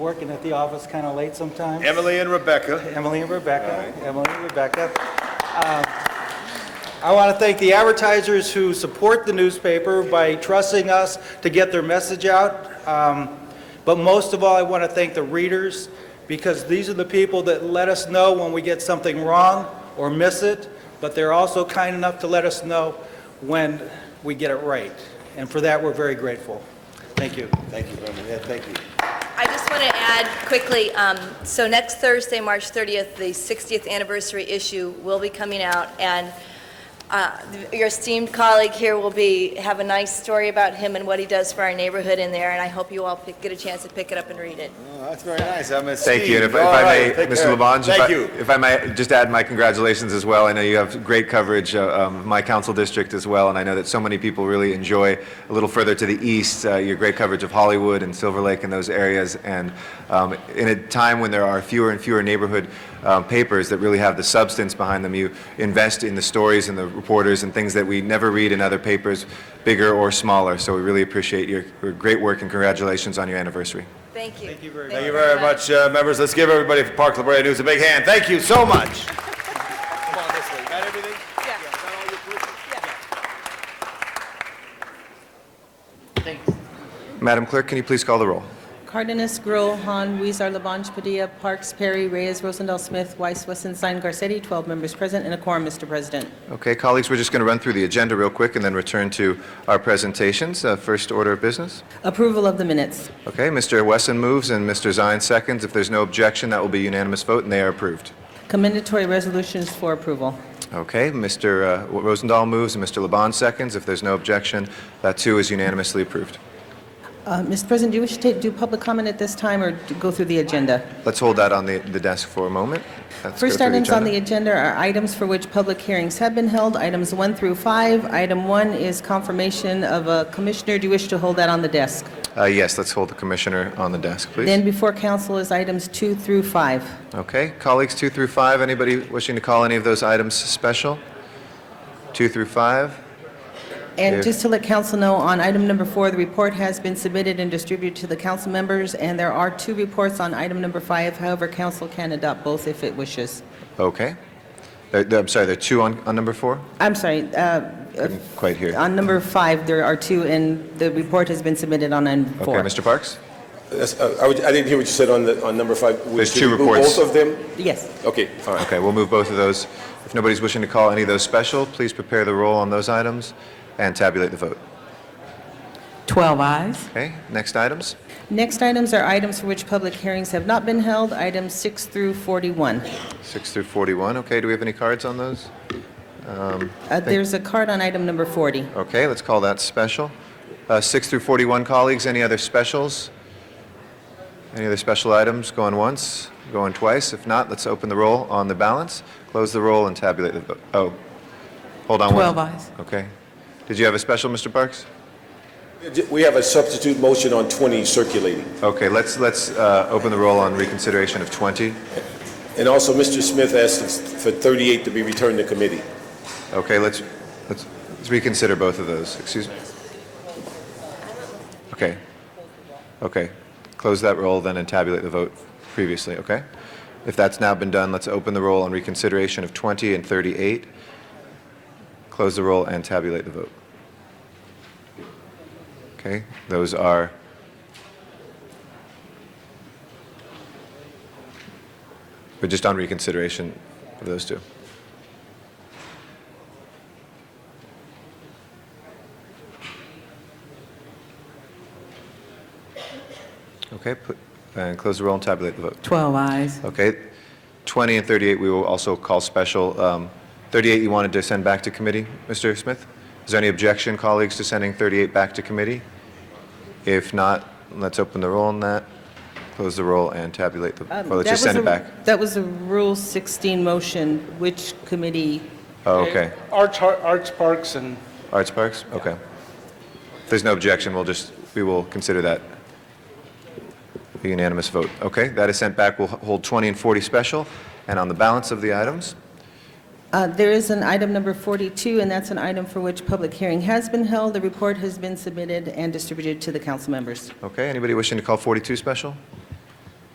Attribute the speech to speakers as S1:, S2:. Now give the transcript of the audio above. S1: Working at the office kind of late sometimes.
S2: Emily and Rebecca.
S1: Emily and Rebecca, Emily and Rebecca. Um, I want to thank the advertisers who support the newspaper by trusting us to get their message out. Um, But most of all, I want to thank the readers, because these are the people that let us know when we get something wrong or miss it, but they're also kind enough to let us know when we get it right. And for that, we're very grateful. Thank you.
S2: Thank you, Emily. Yeah, thank you.
S3: I just want to add quickly, um, so next Thursday, March 30th, the 60th anniversary issue will be coming out, and uh, your esteemed colleague here will be, have a nice story about him and what he does for our neighborhood in there, and I hope you all pick- get a chance to pick it up and read it.
S2: Oh, that's very nice. I'm esteemed.
S4: Thank you. And if if
S2: All
S4: I may,
S2: right, take
S4: Mr.
S2: care.
S4: Labange, if
S2: Thank
S4: I-
S2: you.
S4: if I may just add my congratulations as well. I know you have great coverage uh, of my council district as well, and I know that so many people really enjoy a little further to the east, uh, your great coverage of Hollywood and Silver Lake and those areas. And um, in a time when there are fewer and fewer neighborhood uh, papers that really have the substance behind them, you invest in the stories and the reporters and things that we never read in other papers, bigger or smaller. So we really appreciate your your great work and congratulations on your anniversary.
S3: Thank you.
S1: Thank you very
S2: Thank you very much, uh, members. Let's give everybody for Park La Brea News a big hand. Thank you so much. Come on this way. Got everything?
S3: Yeah.
S2: Got all your proofs?
S4: Madam Clerk, can you please call the roll?
S5: Cardenas, Grill, Han, Weezer, Labange, Padilla, Parks, Perry, Reyes, Rosendahl, Smith, Weiss, Wesson, Sine, Garcetti, 12 members present and a quorum, Mr. President.
S4: Okay, colleagues, we're just going to run through the agenda real quick and then return to our presentations. Uh, First order of business.
S5: Approval of the minutes.
S4: Okay, Mr. Wesson moves and Mr. Zine seconds. If there's no objection, that will be unanimous vote, and they are approved.
S5: Commendatory resolutions for approval.
S4: Okay, Mr. uh, Rosendahl moves and Mr. Labange seconds. If there's no objection, that too is unanimously approved.
S5: Uh, Mr. President, do you wish to take- do public comment at this time or to go through the agenda?
S4: Let's hold that on the the desk for a moment. Let's go
S5: First
S4: through
S5: items on
S4: agenda.
S5: the agenda are items for which public hearings have been held, items 1 through 5. Item 1 is confirmation of a commissioner. Do you wish to hold that on the desk?
S4: Uh, Yes, let's hold the commissioner on the desk, please.
S5: Then before council is items 2 through 5.
S4: Okay, colleagues, two through five, anybody wishing to call any of those items special? Two through five?
S5: And
S4: Yes.
S5: just to let council know, on item number four, the report has been submitted and distributed to the council members, and there are two reports on item number five. However, council can adopt both if it wishes.
S4: Okay. There- there- I'm sorry, there are two on, on number four?
S5: I'm sorry, uh,
S4: Couldn't quite hear.
S5: on number five, there are two, and the report has been submitted on item
S4: Okay,
S5: four.
S4: Mr. Parks?
S6: That's- uh, I would- I didn't hear what you said on the, on number five. Would
S4: There's
S6: you
S4: two
S6: remove
S4: reports.
S6: Both of them?
S5: Yes.
S6: Okay, all right.
S4: Okay, we'll move both of those. If nobody's wishing to call any of those special, please prepare the roll on those items and tabulate the vote.
S7: 12 eyes.
S4: Okay, next items?
S5: Next items are items for which public hearings have not been held, items six through Uh, 41.
S4: Six through 41, okay, do we have any cards on those?
S5: Uh, There's a card on item number 40.
S4: Okay, let's call that special. Uh, Six through 41, colleagues, any other specials? Any other special items going once, going twice? If not, let's open the roll on the balance, close the roll, and tabulate the vote. Oh, hold on. one-
S7: 12 eyes.
S4: Okay. Did you have a special, Mr. Parks? Uh-huh.
S6: We have a substitute motion on 20 circulating.
S4: Okay, let's, let's uh, open the roll on reconsideration of 20.
S6: And also, Mr. Smith asked for 38 to be returned to committee.
S4: Okay, let's, let's let's reconsider both of those, excuse me. Okay. Okay, close that roll then and tabulate the vote previously, okay? If that's now been done, let's open the roll on reconsideration of 20 and 38. Close the roll and tabulate the vote. Okay, those are We're just on reconsideration of those two. Okay, put- and close the roll and tabulate the vote.
S7: 12 eyes.
S4: Okay, 20 and 38, we will also call special. Um, 38, you wanted to send back to committee, Mr. Smith? Is there any objection, colleagues, to sending 38 back to committee? If not, let's open the roll on that, close the roll, and tabulate the,
S5: Um,
S4: well, let's
S5: that
S4: just send
S5: was
S4: it
S5: a-
S4: back.
S5: That was a Rule 16 motion. Which committee
S4: Oh, okay.
S8: Arts, Arts Parks and
S4: Arts Parks? Okay. If there's no objection, we'll just, we will consider that a unanimous vote. Okay, that is sent back. We'll h- hold 20 and 40 special, and on the balance of the items,
S5: Uh, There is an item number 42, and that's an item for which public hearing has been held. The report has been submitted and distributed to the council members.
S4: Okay, anybody wishing to call 42 special?